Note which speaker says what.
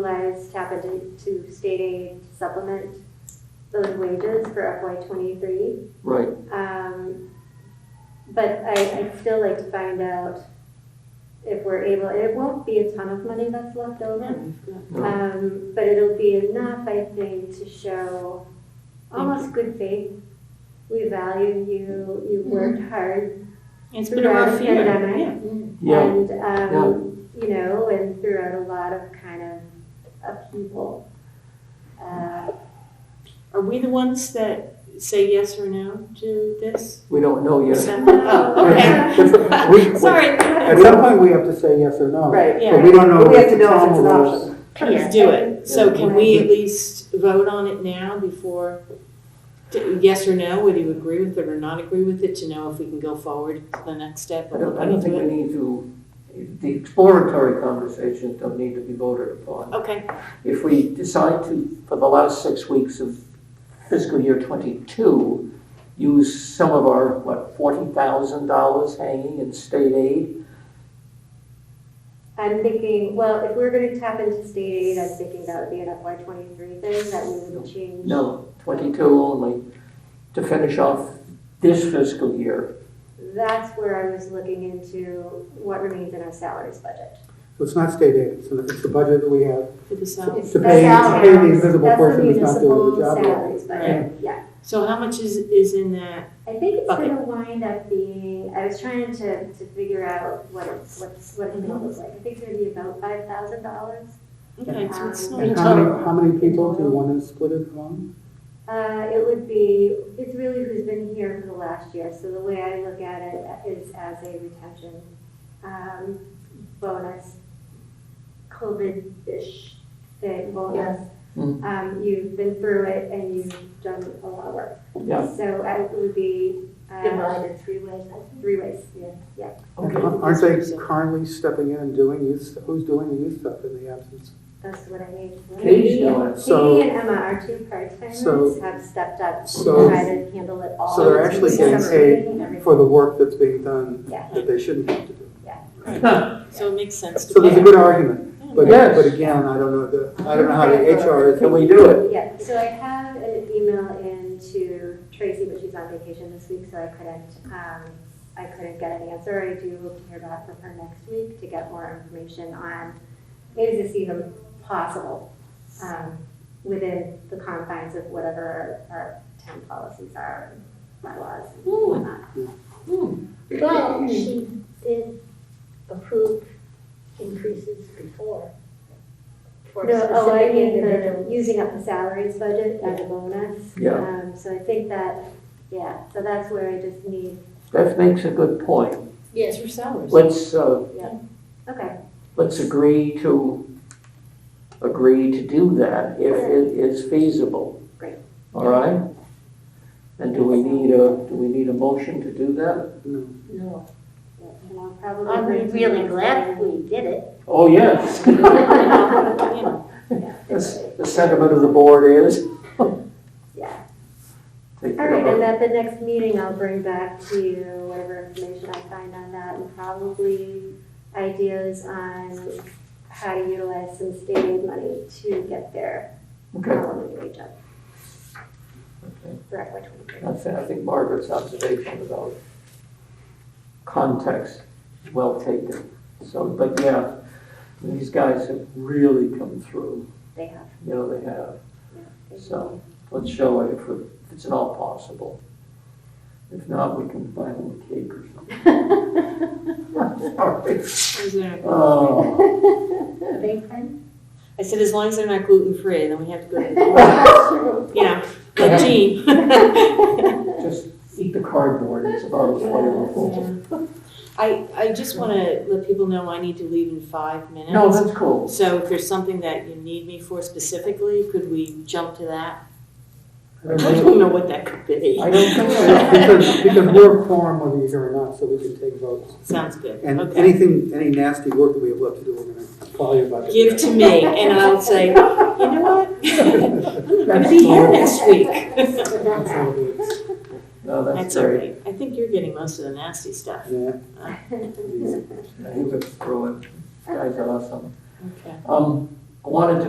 Speaker 1: utilize tap into to state aid to supplement those wages for FY twenty-three.
Speaker 2: Right,
Speaker 1: Um, but I, I'd still like to find out if we're able, and it won't be a ton of money that's left over.
Speaker 2: no,
Speaker 1: Um, but it'll be enough, I think, to show almost good faith. We value you, you worked hard,
Speaker 3: Mm-hmm. It's been E a
Speaker 1: throughout
Speaker 3: rough
Speaker 1: the
Speaker 3: year.
Speaker 1: pandemic.
Speaker 2: yeah,
Speaker 1: And, um, you know, and throughout a lot of kind of upheaval. Uh,
Speaker 3: Are we the ones that say yes or no to this?
Speaker 2: we don't know yet.
Speaker 3: Oh, okay.
Speaker 2: We- we-
Speaker 3: Sorry.
Speaker 4: At some point, we have to say yes or no.
Speaker 5: Right.
Speaker 3: Yeah.
Speaker 4: But we don't know.
Speaker 5: But we have
Speaker 4: what
Speaker 5: to know if it's an
Speaker 4: the
Speaker 5: option.
Speaker 4: rules.
Speaker 3: Please do it. So can we
Speaker 2: Yeah.
Speaker 3: at least vote on it now before, to- yes or no, whether you agree with it or not agree with it, to know if we can go forward to the next step?
Speaker 2: I don't, I don't think we need to, the exploratory conversations don't need to be voted upon.
Speaker 3: Okay,
Speaker 2: If we decide to, for the last six weeks of fiscal year twenty-two, use some of our, what, forty thousand dollars hanging in state aid?
Speaker 1: I'm thinking, well, if we're gonna tap into state aid, I'm thinking that would be an FY twenty-three thing that we would change.
Speaker 2: No, twenty-two only, to finish off this fiscal year.
Speaker 1: That's where I was looking into what remains in our salaries budget.
Speaker 4: So it's not state aid, so it's the budget that we have.
Speaker 3: for the salary.
Speaker 1: It's
Speaker 4: To
Speaker 1: the
Speaker 4: pay- to pay the
Speaker 1: salaries.
Speaker 4: invisible
Speaker 1: That's the
Speaker 4: person who's not doing the
Speaker 1: municipal
Speaker 4: job.
Speaker 1: Salaries budget, yeah.
Speaker 3: So how much is, is in that?
Speaker 1: I think it's
Speaker 3: Okay.
Speaker 1: gonna wind up being, I was trying to, to figure out what it's, what's, what it's gonna look like. I think it's gonna be about five thousand dollars.
Speaker 3: Okay, so it's not a
Speaker 4: And how many,
Speaker 3: ton.
Speaker 4: how many people do you want to split it among?
Speaker 1: Uh, it would be, it's really who's been here for the last year, so the way I look at it is as a retention, um, bonus, COVID-ish thing, bonus.
Speaker 2: Mm.
Speaker 1: Um, you've been through it and you've done a lot of work.
Speaker 2: Yeah.
Speaker 1: So I it would be, uh,
Speaker 5: three ways, I think.
Speaker 1: three ways, yeah.
Speaker 2: Okay.
Speaker 4: Aren't they currently stepping in and doing youth, st- who's doing the youth stuff in the absence?
Speaker 1: That's what I mean.
Speaker 2: Katie's doing it.
Speaker 4: So-
Speaker 1: Katie and Emma, our two part-timers,
Speaker 4: So-
Speaker 1: have stepped up to
Speaker 4: so-
Speaker 1: try to handle it all.
Speaker 4: so they're actually getting
Speaker 1: Summer
Speaker 4: paid
Speaker 1: reading, everything.
Speaker 4: For the work that's being done
Speaker 1: Yeah.
Speaker 4: that they shouldn't have to do.
Speaker 3: So it makes sense to
Speaker 4: So there's a
Speaker 3: pay.
Speaker 4: good argument, but,
Speaker 2: Yes.
Speaker 4: but again, I don't know, the- I don't know how the HR is.
Speaker 2: Can we do it?
Speaker 1: Yeah, so I have an email in to Tracy, but she's on vacation this week, so I couldn't, um, I couldn't get an answer. I do hope to hear back from her next week to get more information on, is this even possible, um, within the confines of whatever our town policies are, and bylaws and whatnot.
Speaker 2: Hmm,
Speaker 6: But she did approve increases before. For
Speaker 1: No, oh, I
Speaker 6: specific
Speaker 1: mean, the,
Speaker 6: individuals.
Speaker 1: using up the salaries budget as a bonus.
Speaker 2: Yeah.
Speaker 1: Um, so I think that, yeah, so that's where I just need,
Speaker 2: That makes a good point.
Speaker 3: It's your salaries.
Speaker 2: Let's, uh,
Speaker 1: okay,
Speaker 2: let's agree to, agree to do that if it is feasible.
Speaker 1: Great.
Speaker 2: All right? And do we need a, do we need a motion to do that?
Speaker 5: No.
Speaker 1: and I'll probably.
Speaker 6: I'm
Speaker 1: bring it to the
Speaker 6: really
Speaker 1: next
Speaker 6: glad
Speaker 1: meeting.
Speaker 6: we did it.
Speaker 2: Oh, yes.
Speaker 3: You know.
Speaker 2: That's The sentiment of the board is.
Speaker 1: Yeah,
Speaker 2: take
Speaker 1: all
Speaker 2: care of
Speaker 1: right, and
Speaker 2: it.
Speaker 1: at the next meeting, I'll bring back to you whatever information I find on that, and probably ideas on how to utilize some state aid money to get their
Speaker 2: Okay.
Speaker 1: hourly wage up
Speaker 2: Okay.
Speaker 1: for FY twenty-three.
Speaker 2: I thi- I think Margaret's observation about context is well taken. So, but yeah, these guys have really come through,
Speaker 1: They have.
Speaker 2: you know, they have.
Speaker 1: they
Speaker 2: So let's show it if, we- if it's at all possible. If not, we can buy them a cake or something. Sorry.
Speaker 3: Is there-
Speaker 2: Oh.
Speaker 1: have. They can.
Speaker 3: I said, as long as they're not gluten free, then we have to go to
Speaker 1: That's true.
Speaker 3: you know, like Gene.
Speaker 2: Just eat the cardboard, it's about as flavorful.
Speaker 3: I, I just want to let people know I need to leave in five minutes.
Speaker 2: No, that's cool.
Speaker 3: So if there's something that you need me for specifically, could we jump to that?
Speaker 4: I
Speaker 3: I
Speaker 4: don't know.
Speaker 3: don't know what that could be.
Speaker 2: I don't think so.
Speaker 4: Because, because we're a quorum whether you're here or not, so we can take votes.
Speaker 3: Sounds good,
Speaker 4: And
Speaker 3: okay.
Speaker 4: anything, any nasty work that we have left to do, we're gonna call you about it.
Speaker 3: Give to me, and I'll say, you know what? I'm gonna be here next week.
Speaker 4: That's all it is.
Speaker 2: No, that's
Speaker 3: That's all
Speaker 2: great.
Speaker 3: right, I think you're getting most of the nasty stuff.
Speaker 4: Yeah.
Speaker 2: You could throw it, guys are awesome.
Speaker 3: Okay.
Speaker 2: Um, I wanted to